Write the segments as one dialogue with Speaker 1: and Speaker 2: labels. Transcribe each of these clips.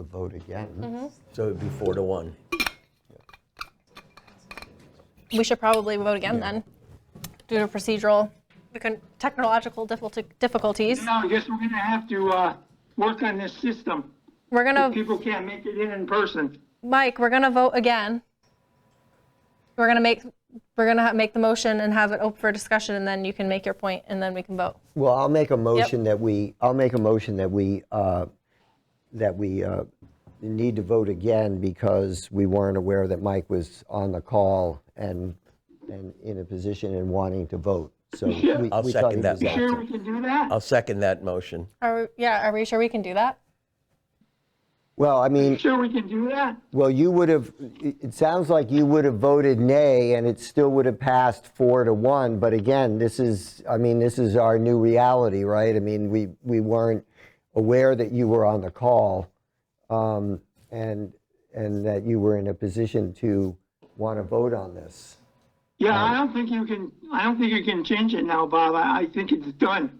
Speaker 1: the vote again.
Speaker 2: So it'd be four to one.
Speaker 3: We should probably vote again then, due to procedural, we couldn't- technological difficulty- difficulties.
Speaker 4: No, I guess we're gonna have to, uh, work on this system.
Speaker 3: We're gonna,
Speaker 4: People can't make it in in person.
Speaker 3: Mike, we're gonna vote again. We're gonna make, we're gonna ha- make the motion and have it open for discussion, and then you can make your point, and then we can vote.
Speaker 1: Well, I'll make a motion that we, I'll make a motion that we, uh, that we uh, need to vote again because we weren't aware that Mike was on the call and, and in a position and wanting to vote. So we we
Speaker 2: I'll
Speaker 1: thought he
Speaker 2: second that
Speaker 1: was
Speaker 2: motion.
Speaker 1: out.
Speaker 4: Sure we can do that?
Speaker 2: I'll second that motion.
Speaker 3: Are, we- yeah, are we sure we can do that?
Speaker 1: Well, I mean,
Speaker 4: Sure we can do that?
Speaker 1: Well, you would have, it it sounds like you would have voted nay, and it still would have passed four to one. But again, this is, I mean, this is our new reality, right? I mean, we, we weren't aware that you were on the call um, and, and that you were in a position to want to vote on this.
Speaker 4: Yeah, I don't think you can, I don't think you can change it now, Bob. I, I think it's done.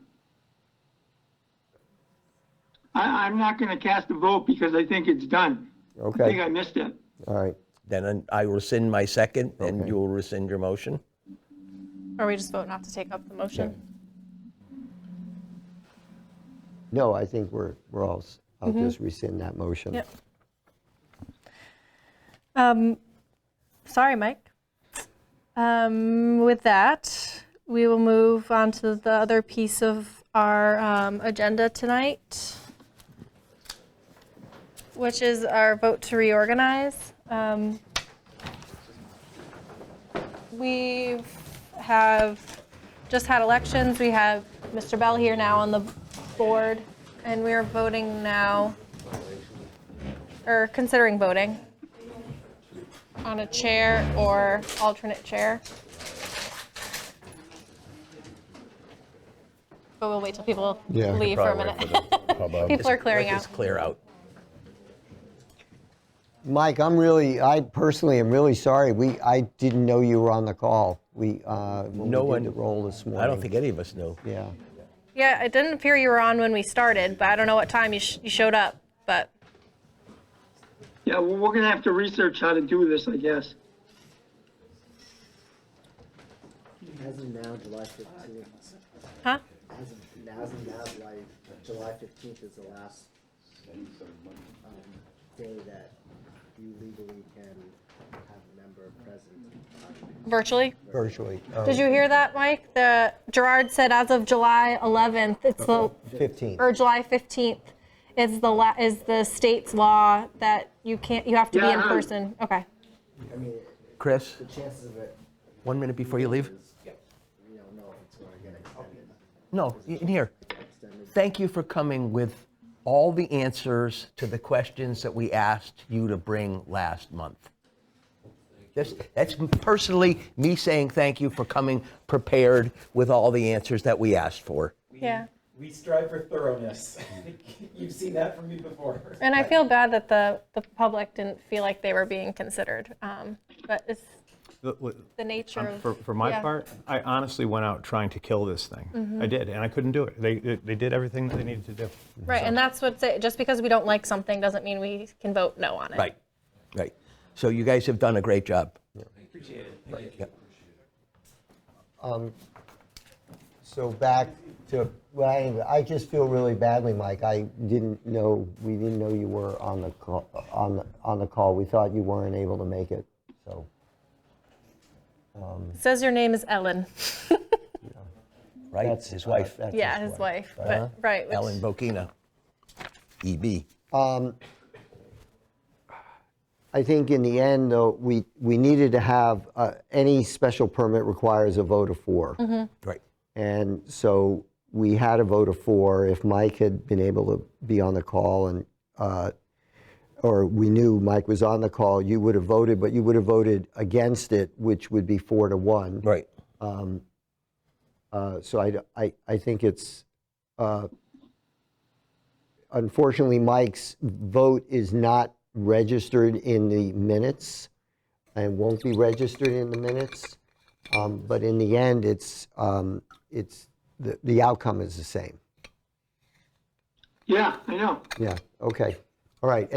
Speaker 4: I, I'm not gonna cast a vote because I think it's done. I think
Speaker 1: Okay,
Speaker 4: I missed it.
Speaker 1: all right.
Speaker 2: Then I rescind my second, and you will rescind your motion.
Speaker 3: Or we just vote not to take up the motion?
Speaker 1: No, I think we're, we're all, s- I'll just rescind that motion.
Speaker 3: Yep. Sorry, Mike. Um, With that, we will move on to the other piece of our um, agenda tonight, which is our vote to reorganize. Um, We have just had elections. We have Mr. Bell here now on the board, and we are voting now, or considering voting on a chair or alternate chair. But we'll wait till people
Speaker 1: Yeah.
Speaker 3: leave for a minute. People are clearing
Speaker 2: Let
Speaker 3: out.
Speaker 2: this clear out.
Speaker 1: Mike, I'm really, I personally am really sorry. We, I didn't know you were on the call. We, uh, when
Speaker 2: No
Speaker 1: we
Speaker 2: one-
Speaker 1: did the roll this morning.
Speaker 2: I don't think any of us knew.
Speaker 1: Yeah.
Speaker 3: Yeah, it didn't appear you were on when we started, but I don't know what time you, sh- you showed up. But
Speaker 4: Yeah, well, we're gonna have to research how to do this, I guess.
Speaker 5: As of now, July fifteenth,
Speaker 3: huh?
Speaker 5: as of, as of now, July, July fifteenth is the last, um, day that you legally can have a member present.
Speaker 3: Virtually.
Speaker 1: Virtually. uh,
Speaker 3: Did you hear that, Mike? The Gerard said as of July 11th, it's the
Speaker 1: 15.
Speaker 3: or July 15th is the la- is the state's law that you can't you have to be
Speaker 4: Yeah,
Speaker 3: in
Speaker 4: I heard.
Speaker 3: person. Okay.
Speaker 5: I mean,
Speaker 2: Chris,
Speaker 5: the chances of it,
Speaker 2: one minute before you leave?
Speaker 5: we don't know if it's gonna get extended.
Speaker 2: No, in here. Thank you for coming with all the answers to the questions that we asked you to bring last month. That's, that's personally me saying thank you for coming prepared with all the answers that we asked for.
Speaker 3: Yeah.
Speaker 6: We strive for thoroughness. You've seen that from me before.
Speaker 3: And I feel bad that the the public didn't feel like they were being considered. Um, but it's
Speaker 7: Look, look,
Speaker 3: the nature
Speaker 7: um,
Speaker 3: of
Speaker 7: For, for my
Speaker 3: yeah.
Speaker 7: part, I honestly went out trying to kill this thing. I did, and I couldn't do it. They, they they did everything that they needed to do.
Speaker 3: Right, and that's what's it. Just because we don't like something doesn't mean we can vote no on it.
Speaker 2: Right, right. So you guys have done a great job.
Speaker 6: Appreciate it. Thank you.
Speaker 1: So back to, well, anyway, I just feel really badly, Mike. I didn't know, we didn't know you were on the, call- on, the on the call. We thought you weren't able to make it, so.
Speaker 3: Says your name is Ellen.
Speaker 2: Right, his wife,
Speaker 1: that's
Speaker 3: yeah,
Speaker 1: his
Speaker 3: his wife.
Speaker 2: Uh-huh.
Speaker 3: But right, which,
Speaker 2: Ellen Bokina, E EB.
Speaker 1: I think in the end, though, we, we needed to have, uh, any special permit requires a vote of 4
Speaker 3: Mm-hmm.
Speaker 2: Right.
Speaker 1: And so we had a vote of four. If Mike had been able to be on the call and, uh, or we knew Mike was on the call, you would have voted, but you would have voted against it, which would be four to one.
Speaker 2: Right.
Speaker 1: Uh, So I, I, I think it's, uh, unfortunately, Mike's vote is not registered in the minutes and won't be registered in the minutes. Um, But in the end, it's, um, it's, the, the outcome is the same.
Speaker 4: Yeah, I know.
Speaker 1: Yeah, okay. All right.